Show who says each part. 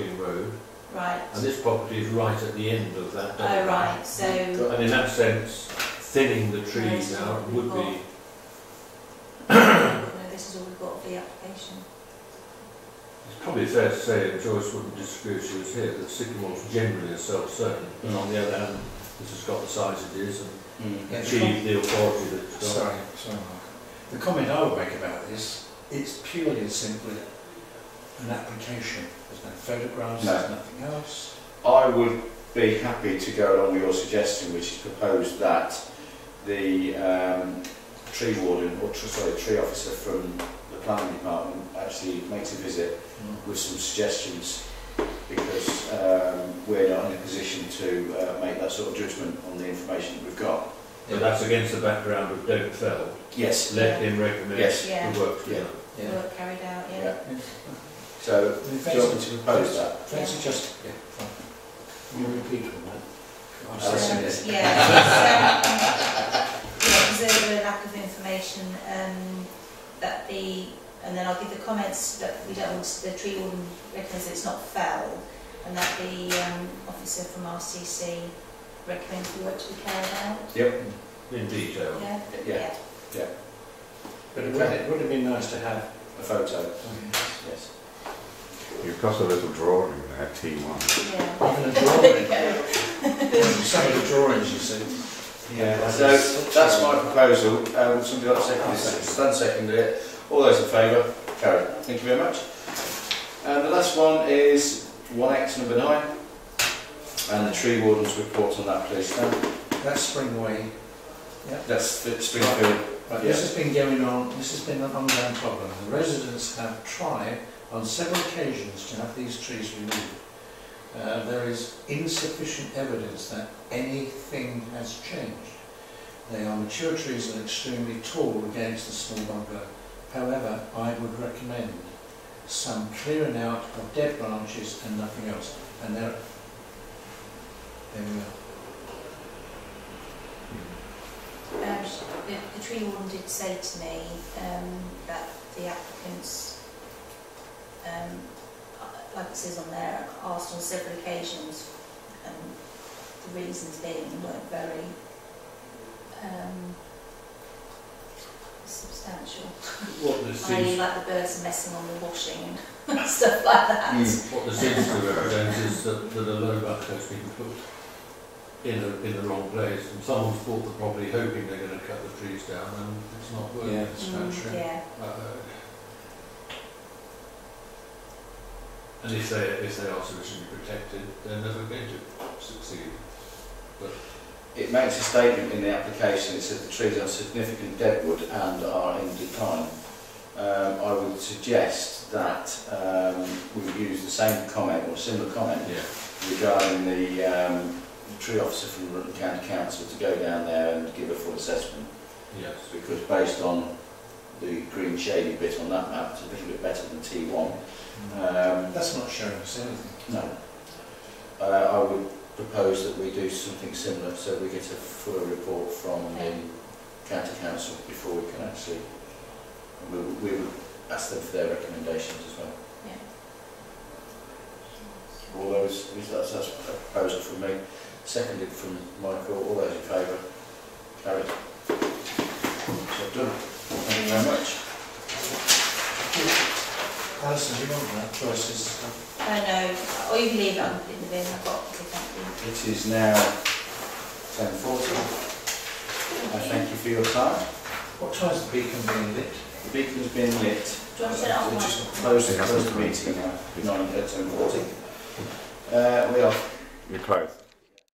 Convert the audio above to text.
Speaker 1: right.
Speaker 2: and this property is right at the end of that.
Speaker 1: Oh,
Speaker 2: diagram.
Speaker 1: right, so,
Speaker 2: And in that sense, thinning the trees out would be,
Speaker 1: no, this is all we've got for the application.
Speaker 2: it's probably fair to say, and Joyce wouldn't disagree if she was here, that sycamores generally are self-certain. And on the other hand, this has got the size it is and
Speaker 3: Yeah, the com-
Speaker 2: achieved the authority that it's got.
Speaker 3: Mm. Sorry, sorry, Mark. The comment I would make about this, it's purely and simply an application. There's no photographs,
Speaker 4: No.
Speaker 3: there's nothing else.
Speaker 4: I would be happy to go along with your suggestion, which is proposed that the um, tree warden, or tr- sorry, tree officer from the planning department actually makes a visit with some suggestions because um, we're not in a position to uh, make that sort of judgment on the information that we've got.
Speaker 2: But that's against the background of don't fell.
Speaker 4: Yes.
Speaker 2: Let him recommend
Speaker 4: Yes.
Speaker 1: Yeah.
Speaker 2: the work to be
Speaker 4: Yeah.
Speaker 2: done.
Speaker 3: Yeah.
Speaker 1: Work carried out, yeah.
Speaker 4: Yeah. So, do you want me to propose that?
Speaker 3: Fancy just, yeah, fine. You're repeating that. I'm
Speaker 4: I'll
Speaker 1: Um,
Speaker 3: sorry.
Speaker 4: second it.
Speaker 1: Yeah, it's, um, yeah, observe a lack of information, um, that the, and then I'll give the comments that we don't, want the tree warden recommends it's not fell, and that the, um, officer from RCC recommends the work to be carried out,
Speaker 2: In detail.
Speaker 1: yeah?
Speaker 4: Yeah,
Speaker 3: But it would, it would have been nice to have.
Speaker 4: a photo,
Speaker 3: um,
Speaker 4: yes.
Speaker 5: You've got a little drawing there, T1.
Speaker 1: Yeah.
Speaker 3: Even a
Speaker 1: There you
Speaker 3: drawing.
Speaker 1: go.
Speaker 3: Some of the drawings, you see.
Speaker 4: Yeah, so that's my proposal. Um, somebody got second, Stan seconded it. All those in favour, carried. Thank you very much. And the last one is 1X number 9 and the tree warden's report on that, please. Stan.
Speaker 3: That's Springway.
Speaker 4: That's the Springfield.
Speaker 3: Right, this has been going on, this has been an ongoing problem. The residents have tried on several occasions to have these trees removed. Uh, there is insufficient evidence that anything has changed. They are mature trees and extremely tall against the small bungalow. However, I would recommend some clearing out of dead branches and nothing else. And there, there we are.
Speaker 1: Um, the, the tree warden did say to me, um, that the applicants, um, uh, like it says on there, asked on several occasions, and the reasons being weren't very, um, substantial.
Speaker 2: What there
Speaker 1: I.e.
Speaker 2: seems,
Speaker 1: like the birds messing on the washing and stuff like
Speaker 4: Hmm. Mm.
Speaker 1: that. Mm,
Speaker 2: what there seems to represent is that, that a low buck has been put in a, in the wrong place and someone's bought the property hoping they're going to cut the trees down and it's not working.
Speaker 3: Yeah, it's not
Speaker 1: Mm,
Speaker 3: true.
Speaker 1: Yeah,
Speaker 2: Uh, and if they, if they are sufficiently protected, they're never going to succeed.
Speaker 4: It makes a statement in the application, it says the trees are significant deadwood and are in decline. Um, I would suggest that um, we use the same comment or similar comment
Speaker 2: Yeah.
Speaker 4: regarding the, um, the tree officer from Rutland County Council to go down there and give a full assessment
Speaker 2: Yes.
Speaker 4: because based on the green shady bit on that map, it's a little bit better than T1. Um,
Speaker 3: That's not showing us anything.
Speaker 4: no. Uh, I would propose that we do something similar so we get a fuller report from the county council before we can actually, we, would- we would ask them for their recommendations as well.
Speaker 1: yeah.
Speaker 4: All those, that's, that's a proposal from me, seconded from Michael, all those in favour, carried. So done, thank you very much.
Speaker 3: Alison, do you want that? Joyce's.
Speaker 1: I know, or you can leave it on in the bin, I've got, thank
Speaker 4: It is now ten forty, I thank you for your time.
Speaker 3: What time's the beacon being lit?
Speaker 4: The beacon's been lit.
Speaker 1: Do you want to turn it on,
Speaker 4: We
Speaker 1: Mike?
Speaker 4: just close the, close the meeting now, nine, ten forty. Uh, we are
Speaker 5: You're close.